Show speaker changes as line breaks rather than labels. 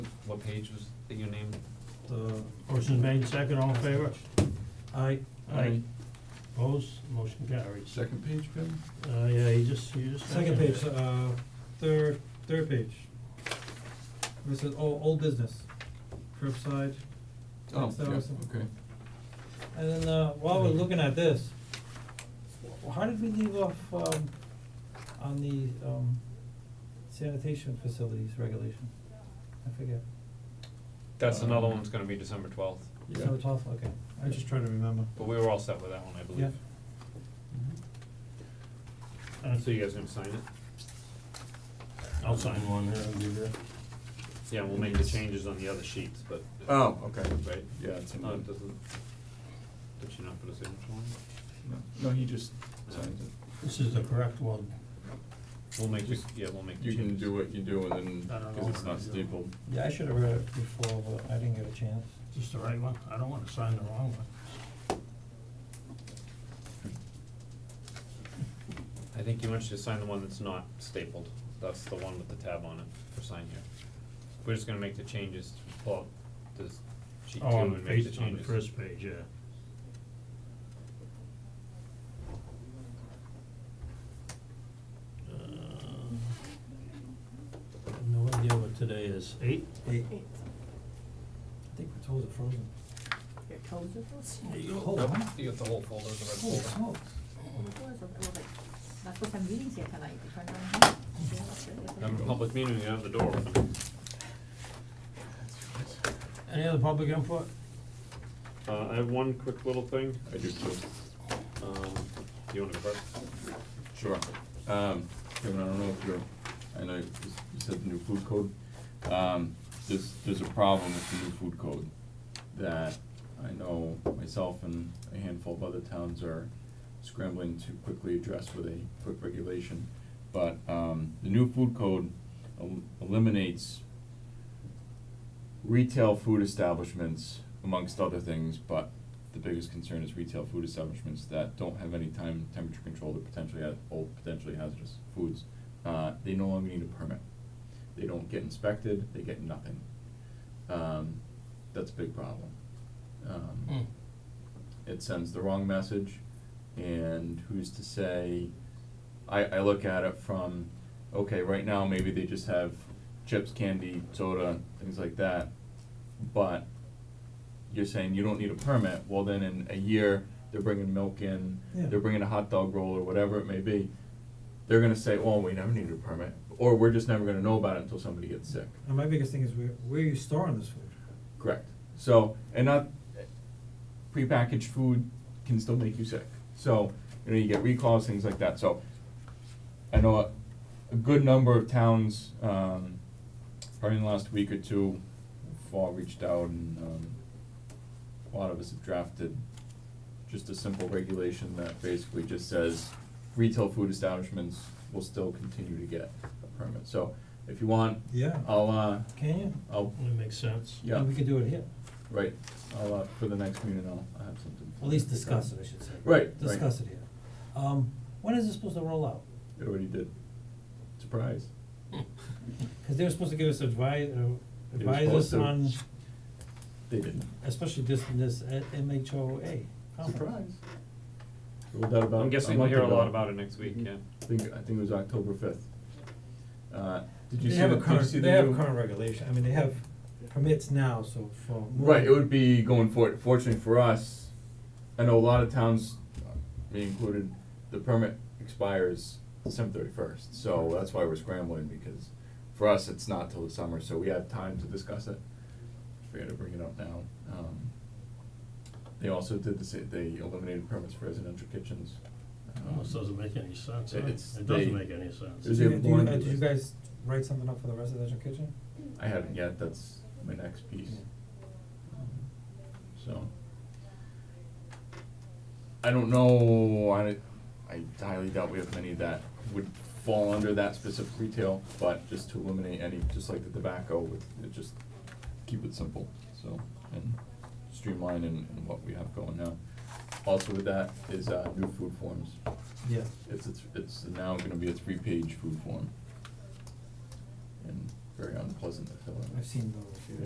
what page was that you named?
The,
Motion made, second, all in favor?
I,
Aye. Opposed, motion carries.
Second page, Kevin?
Uh, yeah, you just, you just.
second page, uh, third, third page. This is all, old business, curbside.
Oh,
Next
yeah,
hour, so-
okay.
And then, uh, while we're looking at this, wh- how did we leave off, um, on the, um, sanitation facilities regulation? I forget,
That's another one that's gonna be December twelfth,
December
Yeah.
twelfth, okay, I just try to remember.
but we were all set with that one, I believe.
Uh,
So you guys gonna sign it?
I'll sign one.
Yeah, we'll make the changes on the other sheets, but.
Oh, okay.
Right?
Yeah, it's in
No,
there.
it doesn't, did she not put a signature on it?
No, no, he just signed it.
This is the correct one.
We'll make, the yeah, we'll make the
You can
changes.
do what you do and
I
then,
don't know
cause it's
what I'm
not
doing.
stapled.
Yeah, I should have read it before, but I didn't get a chance.
Just the right one? I don't wanna sign the wrong one.
I think you want you to sign the one that's not stapled, that's the one with the tab on it for sign here. We're just gonna make the changes, to pull out this sheet two
Oh, on the
and make the
page,
changes.
on the first page, yeah. Uh, No idea what today is, eight?
Eight,
Eight.
I think we're told it frozen.
Your toes are those?
There you go.
Hold on.
You got the whole folder, the red
Holy smokes.
Oh, it was, it was like, that's what I'm reading here tonight, if I'm not wrong. Yeah, that's it, isn't it?
I'm in public meeting, you have the door open.
Any other public input?
Uh, I have one quick little thing,
I do too.
um, do you wanna go first?
Sure. Um, Kevin, I don't know if you're, I know you s- you said the new food code. Um, there's, there's a problem with the new food code that I know myself and a handful of other towns are scrambling to quickly address with a quick regulation. But, um, the new food code el- eliminates retail food establishments amongst other things, but the biggest concern is retail food establishments that don't have any time temperature controlled or potentially ha- or potentially hazardous foods. Uh, they no longer need a permit. They don't get inspected, they get nothing. Um, that's a big problem. Um, it sends the wrong message and who's to say I, I look at it from okay right now maybe they just have chips candy soda things like that but you're saying you don't need a permit well then in a year they're bringing milk in
Yeah.
they're bringing a hot dog roll or whatever it may be they're going to say well we never needed a permit or we're just never going to know about it until somebody gets sick
And my biggest thing is where, where are you storing this food?
Correct. So, and not, prepackaged food can still make you sick. So, you know, you get recalls, things like that. So, I know a, a good number of towns, um, probably in the last week or two, have all reached out and, um, a lot of us have drafted just a simple regulation that basically just says retail food establishments will still continue to get a permit. So, if you want,
Yeah.
I'll, uh,
Oh. Can you?
I'll,
That makes sense.
yeah.
And we could do it here,
Right, I'll, uh, for the next meeting, I'll, I'll have something.
at least discuss it, I should say.
Right, right.
Discuss it here. Um, when is this supposed to roll out?
It already did. Surprise.
Cause they were supposed to give us advice, uh,
They were
advise us on,
supposed They didn't.
especially this, this uh, MHOA conference.
Surprise. Rolled out about
I'm
a
guessing we'll
month
hear a lot
ago.
about it next week, yeah.
I think, I think it was October fifth. Uh, did you
They
see the,
have a
did you
current,
see the
they have
new-
a current regulation, I mean, they have permits now, so for.
Right, it would be going for, fortunately for us, I know a lot of towns, me included, the permit expires December thirty-first, so that's why we're scrambling, because for us, it's not till the summer, so we have time to discuss it. Forget to bring it up now, um, they also did the, sa- they eliminated permits for residential kitchens.
Almost
Um,
doesn't make any sense, huh?
It's-
It
they-
doesn't make any sense.
It was
Do you-
even
do you- uh,
longer
did you
list.
guys write something up for the residential kitchen?
I haven't yet, that's my next piece. So. I don't know, I, I highly doubt we have many that would fall under that specific retail, but just to eliminate any, just like the tobacco, with, it just keep it simple, so, and streamline in, in what we have going now. Also with that is, uh, new food forms,
Yeah.
it's, it's, it's now gonna be a three-page food form. And very unpleasant to fill in.
I've seen those, yeah.